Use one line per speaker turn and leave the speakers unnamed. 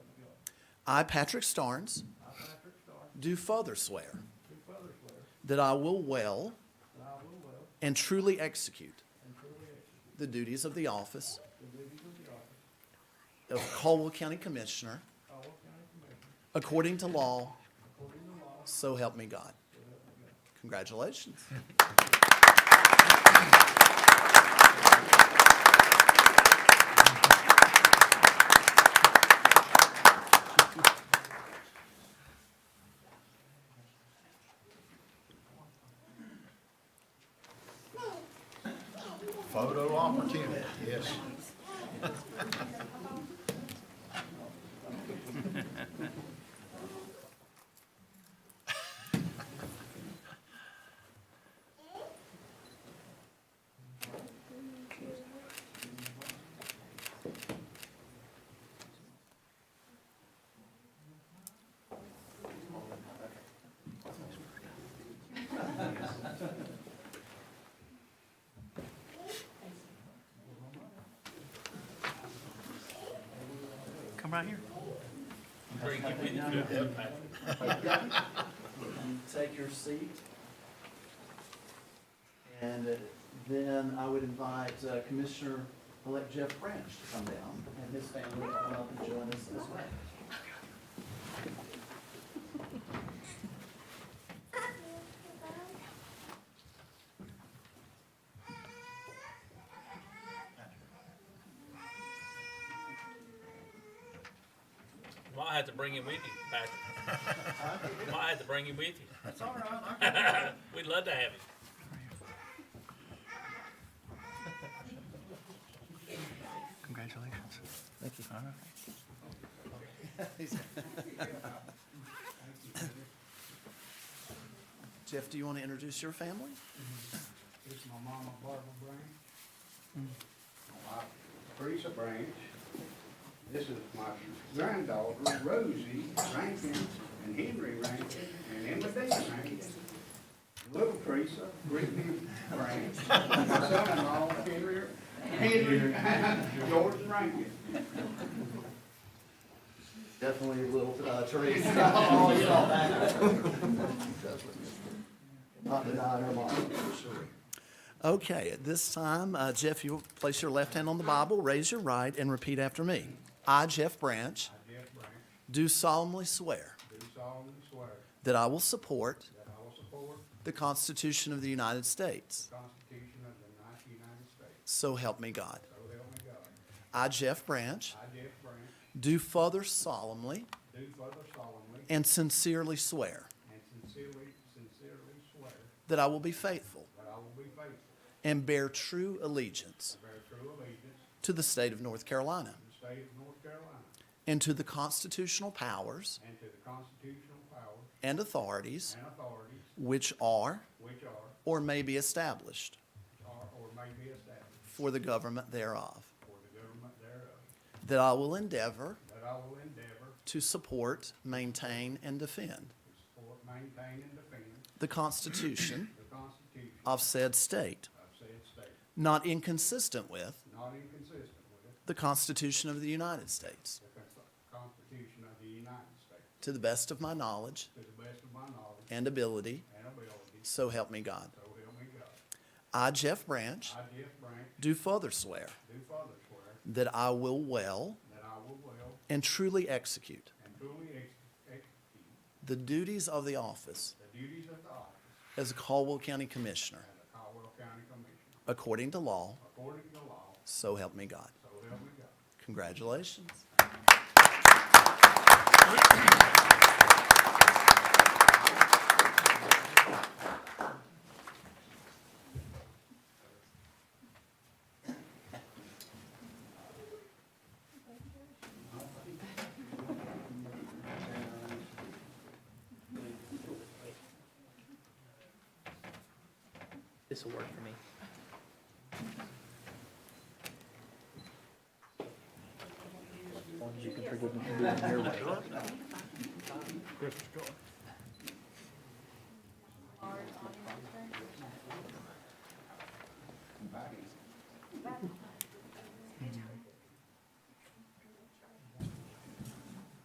I, Patrick Starnes,
I, Patrick Starr,
do further swear
do further swear
that I will well
that I will well
and truly execute
and truly execute
the duties of the office
the duties of the office
of Caldwell County Commissioner
of Caldwell County Commissioner
according to law,
according to law,
so help me God. Congratulations.
Photo opportunity, yes.
Come right here.
Take your seat. And uh, then I would invite uh, Commissioner-elect Jeff Branch to come down and his family to come up and join us as well.
Might have to bring him with you, Patrick. Might have to bring him with you.
That's all right, I
We'd love to have him.
Congratulations.
Thank you.
All right.
Jeff, do you want to introduce your family?
This is my mama Barbara Brown.
my Mm. Teresa Branch. This is my granddaughter Rosie Rankin and Henry Rankin and Emma Dean Rankin. Little Teresa, Brittany Branch, and my son-in-law Henry, Henry, George Rankin.
Definitely little uh, Teresa. Always saw that. Not denying her mom. Okay, at this time, uh, Jeff, you'll place your left hand on the Bible, raise your right, and repeat after me. I, Jeff Branch,
Jeff Branch,
do solemnly swear
do solemnly swear
that I will support
that I will support
the Constitution of the United States.
the Constitution of the United States.
So help me God.
So help me God.
I, Jeff Branch,
I, Jeff Branch,
do further solemnly
do further solemnly
and sincerely swear
and sincerely, sincerely swear
that I will be faithful
that I will be faithful
and bear true allegiance
Bear true allegiance
to the state of North Carolina
to the state of North Carolina
and to the constitutional powers
and to the constitutional powers
and authorities
and authorities
which are
which are
or may be established
are or may be established
for the government thereof,
for the government thereof,
that I will endeavor
that I will endeavor
to support, maintain, and defend
to support, maintain, and defend
the Constitution
the Constitution
of said state,
of said state,
not inconsistent with
not inconsistent with
the Constitution of the United States,
the Con- Constitution of the United States,
to the best of my knowledge
to the best of my knowledge
and ability,
and ability,
so help me God.
so help me God.
I, Jeff Branch,
I, Jeff Branch,
do further swear
do further swear
that I will well
that I will well
and truly execute
and truly ex- execute
the duties of the office
the duties of the office
as a Caldwell County Commissioner
And the Caldwell County Commission,
according to law,
according to law,
so help me God.
so help me God.
Congratulations.
This will work for me. You can forgive me for doing it your way.